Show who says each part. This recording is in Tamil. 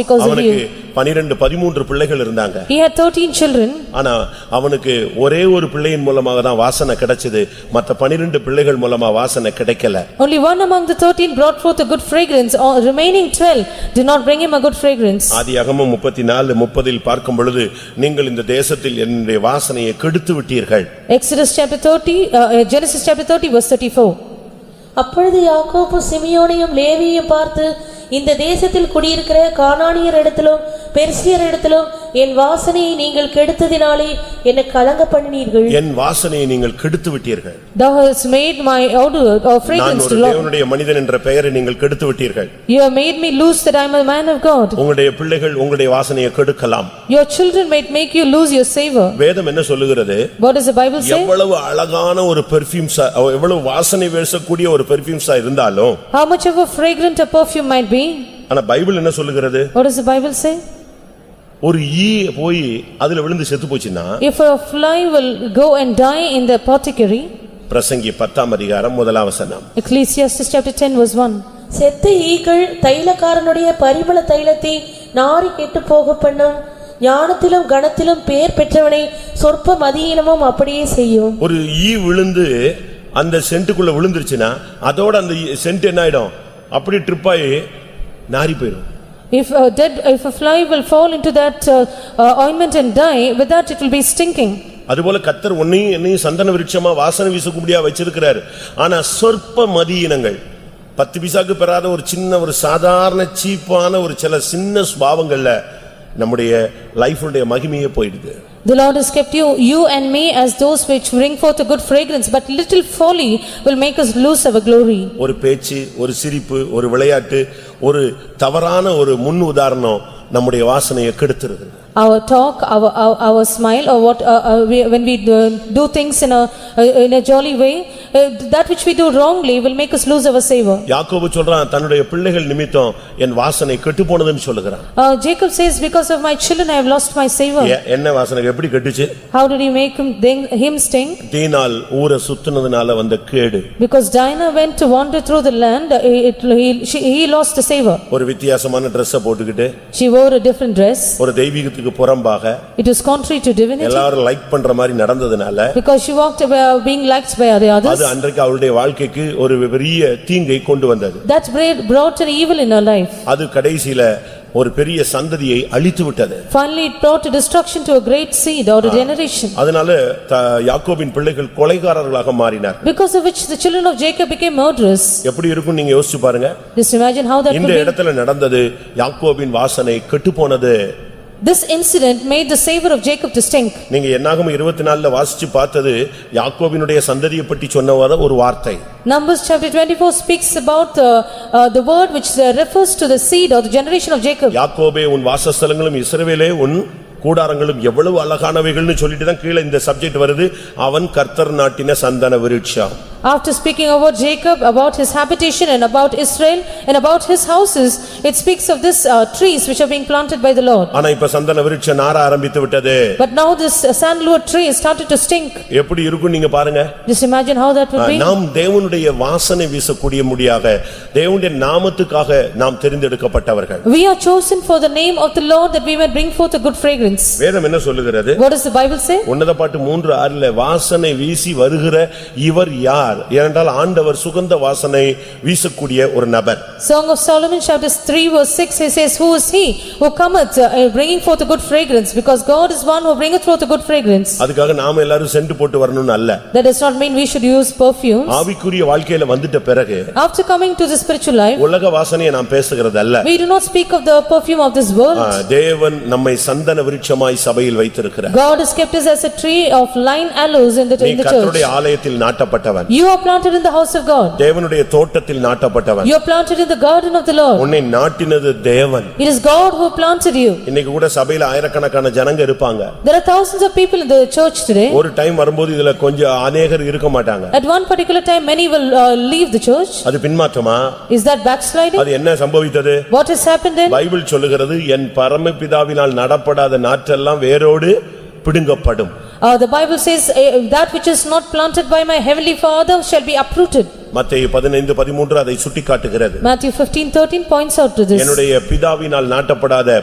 Speaker 1: because of
Speaker 2: அவனுக்கு
Speaker 1: you.
Speaker 2: பனிரெண்டு பதிமூன்று பிள்ளைகள் இருந்தாங்க
Speaker 1: He had thirteen children
Speaker 2: ஆனா அவனுக்கு ஒரே ஒரு பிள்ளையின் மூலமாக தான் வாசனை கிடைச்சது மத்த பனிரெண்டு பிள்ளைகள் மூலமா வாசனை கிடைக்கல
Speaker 1: Only one among the thirteen brought forth a good fragrance, or remaining twelve did not bring him a good fragrance.
Speaker 2: ஆதியாகமம் முப்பத்தி நாலு முப்பதில் பார்க்கும் பொழுது நீங்கள் இந்த தேசத்தில் என்னுடைய வாசனையை கெடுத்து விட்டீர்கள்
Speaker 1: Exodus chapter thirty, uh, uh, Genesis chapter thirty verse thirty-four.
Speaker 3: அப்பொழுது யாக்கோப்பு சிமியோனையும் லேவியையும் பார்த்து இந்த தேசத்தில் குடியிருக்கிற கானானியர் இடத்திலும் பெர்சியர் இடத்திலும் என் வாசனையை நீங்கள் கெடுத்ததினாலே என்னை கலங்க பண்ணினீர்கள்
Speaker 2: என் வாசனையை நீங்கள் கெடுத்து விட்டீர்கள்
Speaker 1: Thou hast made my odor or
Speaker 2: நான்
Speaker 1: fragrance
Speaker 2: ஒரு
Speaker 1: to Lord.
Speaker 2: தேவனுடைய மனிதன் என்ற பெயரை நீங்கள் கெடுத்து விட்டீர்கள்
Speaker 1: You have made me lose that I am a man of God.
Speaker 2: உங்களுடைய பிள்ளைகள் உங்களுடைய வாசனையை கெடுக்கலாம்
Speaker 1: Your children might make you lose your savor.
Speaker 2: வேதம் என்ன சொல்லுகிறது
Speaker 1: What does the Bible say?
Speaker 2: எவ்வளவு அழகான ஒரு பெர்ஃபியூம்ஸா எவ்வளவு வாசனை வீசக்கூடிய ஒரு பெர்ஃபியூம்ஸா இருந்தாலும்
Speaker 1: How much of a fragrant a perfume might be?
Speaker 2: ஆனா பைபிள் என்ன சொல்லுகிறது
Speaker 1: What does the Bible say?
Speaker 2: ஒரு ஈ போய் அதுல விழுந்து செத்து போச்சுன்னா
Speaker 1: If a fly will go and die in the apothecary,
Speaker 2: பிரசங்கி பத்தாம் அதிகாரம் முதலாம் வசனம்
Speaker 1: Ecclesiastes chapter ten verse one.
Speaker 3: செத்த ஈக்கள் தைலக்காரனுடைய பரிமள தைலத்தை நாறி கெட்டுப் போக பண்ணும் ஞானத்திலும் கணத்திலும் பேர் பெற்றவனை சொற்ப மதியீனமும் அப்படியே செய்யும்
Speaker 2: ஒரு ஈ விழுந்து அந்த சென்ட்டுக்குள்ள விழுந்துருச்சுன்னா அதோட அந்த சென்ட் என்ன ஆயிடும் அப்படி ட்ரிப் ஆகி நாறி போயிடும்
Speaker 1: If a dead, if a fly will fall into that uh, uh, ointment and die, with that it will be stinking.
Speaker 2: அதுபோல கத்தர் உன்னையும் என்னையும் சந்தன விருட்சமா வாசனை வீசக்கூடியா வச்சிருக்கிறார் ஆனா சொற்ப மதியினங்கள் பத்து பைசாக்கு பெறாத ஒரு சின்ன ஒரு சாதாரண சீப்பான ஒரு சில சின்ன சுபாவங்கள்ல நம்முடைய லைஃபுடைய மகிமையே போயிடுது
Speaker 1: The Lord has kept you, you and me as those which bring forth a good fragrance, but little folly will make us lose our glory.
Speaker 2: ஒரு பேச்சு ஒரு சிரிப்பு ஒரு விளையாட்டு ஒரு தவறான ஒரு முன் உதாரணம் நம்முடைய வாசனையை கெடுத்துருது
Speaker 1: Our talk, our, our, our smile or what, uh, uh, we- when we uh, do things in a, uh, in a jolly way, uh, that which we do wrongly will make us lose our savor.
Speaker 2: யாக்கோபு சொல்றான் தன்னுடைய பிள்ளைகள் நிமித்தம் என் வாசனை கெட்டு போனதுன்னு சொல்லுகிறான்
Speaker 1: Uh, Jacob says, because of my children I have lost my savor.
Speaker 2: ஏ- என்ன வாசனை எப்படி கெட்டுச்சு
Speaker 1: How did he make him, him stink?
Speaker 2: தீனால் ஊரை சுத்துனதுனால வந்த கேடு
Speaker 1: Because Dinah went to wander through the land, uh, it, he, she- he lost the savor.
Speaker 2: ஒரு வித்தியாசமான Dress-அ போட்டுக்கிட்டு
Speaker 1: She wore a different dress.
Speaker 2: ஒரு தெய்வீகத்துக்கு புறம்பாக
Speaker 1: It was contrary to divinity
Speaker 2: எல்லாரும் லைக் பண்ற மாதிரி நடந்ததுனால
Speaker 1: because she walked away being liked by the others.
Speaker 2: அது அன்றைக்கு அவளுடைய வாழ்க்கைக்கு ஒரு பெரிய தீங்கை கொண்டு வந்தது
Speaker 1: That brought- brought an evil in her life.
Speaker 2: அது கடைசியில ஒரு பெரிய சந்ததியை அழித்து விட்டது
Speaker 1: Finally, it brought a destruction to a great seed or a generation.
Speaker 2: அதனால த- யாக்கோபின் பிள்ளைகள் கொலைகாரர்களாக மாறினார்
Speaker 1: Because of which the children of Jacob became murderers.
Speaker 2: எப்படி இருக்கும் நீங்க யோசிச்சு பாருங்க
Speaker 1: Just imagine how that
Speaker 2: இந்த
Speaker 1: could be.
Speaker 2: இடத்துல நடந்தது யாக்கோபின் வாசனை கெட்டுப்போனது
Speaker 1: This incident made the savor of Jacob to stink.
Speaker 2: நீங்க என்னாகும் இருபத்தி நாலுல வாசிச்சு பார்த்தது யாக்கோபினுடைய சந்ததியை பற்றி சொன்னவாத ஒரு வார்த்தை
Speaker 1: Numbers chapter twenty-four speaks about uh, uh, the word which uh, refers to the seed or the generation of Jacob.
Speaker 2: யாக்கோபே உன் வாசஸ்தலங்களும் இஸ்ரவேலே உன் கூடாரங்களும் எவ்வளவு அழகானவைகள்னு சொல்லிட்டு தான் கீழே இந்த சப்ஜெக்ட் வருது அவன் கர்த்தர் நாட்டின சந்தன விருட்சம்
Speaker 1: After speaking about Jacob, about his habitation and about Israel and about his houses, it speaks of this uh, trees which are being planted by the Lord.
Speaker 2: ஆனா இப்ப சந்தன விருட்சம் நார ஆரம்பித்து விட்டது
Speaker 1: But now this uh, sandalwood tree started to stink.
Speaker 2: எப்படி இருக்கும் நீங்க பாருங்க
Speaker 1: Just imagine how that
Speaker 2: Uh,
Speaker 1: would be.
Speaker 2: நாம் தேவனுடைய வாசனை வீசக்கூடிய முடியாக தேவனுடைய நாமத்துக்காக நாம் தெரிந்தெடுக்கப்பட்டவர்கள்
Speaker 1: We are chosen for the name of the Lord that we may bring forth a good fragrance.
Speaker 2: வேதம் என்ன சொல்லுகிறது
Speaker 1: What does the Bible say?
Speaker 2: உன்னத பாட்டு மூன்று ஆறில் வாசனை வீசி வருகிற இவர் யார் ஏனென்றால் ஆண்டவர் சுகந்த வாசனை வீசக்கூடிய ஒரு நபர்
Speaker 1: Song of Solomon chapter three verse six, he says, "Who is he who cometh uh, bringing forth a good fragrance? Because God is one who bringeth forth a good fragrance."
Speaker 2: அதுக்காக நாம எல்லாரும் சென்று போட்டு வரணும்னு அல்ல
Speaker 1: That does not mean we should use perfumes.
Speaker 2: ஆவிக்குரிய வாழ்க்கையில வந்துட்ட பிறகு
Speaker 1: After coming to the spiritual life,
Speaker 2: உலக வாசனையை நாம் பேசுகிறது அல்ல
Speaker 1: We do not speak of the perfume of this
Speaker 2: ah,
Speaker 1: world.
Speaker 2: தேவன் நம்மை சந்தன விருட்சமாய் சபையில் வைத்திருக்கிறார்
Speaker 1: God has kept us as a tree of line aloes in the
Speaker 2: நீ
Speaker 1: in the
Speaker 2: கர்த்தருடைய
Speaker 1: church.
Speaker 2: ஆலயத்தில் நாட்டப்பட்டவன்
Speaker 1: You are planted in the house of God.
Speaker 2: தேவனுடைய தோட்டத்தில் நாட்டப்பட்டவன்
Speaker 1: You are planted in the garden of the Lord.
Speaker 2: உன்னை நாட்டினது தேவன்
Speaker 1: It is God who planted you.
Speaker 2: இன்னைக்கு கூட சபையில ஆயிரக்கணக்கான ஜனங்க இருப்பாங்க
Speaker 1: There are thousands of people in the church today.
Speaker 2: ஒரு டைம் வரும்போது இதுல கொஞ்சம் அநேகர் இருக்க மாட்டாங்க
Speaker 1: At one particular time, many will uh, leave the church.
Speaker 2: அது பின்மாற்றமா
Speaker 1: Is that backsliding?
Speaker 2: அது என்ன சம்பவித்தது
Speaker 1: What has happened then?
Speaker 2: Bible சொல்லுகிறது என் பரமபிதாவினால் நடப்படாத நாற்றெல்லாம் வேரோடு பிடுங்கப்படும்
Speaker 1: Uh, The Bible says, "Eh, "That which is not planted by my heavenly Father shall be uprooted."
Speaker 2: மத்தேயு பதினைந்து பதிமூன்று அதை சுட்டிக்காட்டுகிறது
Speaker 1: Matthew 15:13 points out to this.
Speaker 2: என்னுடைய பிதாவினால் நாட்டப்படாத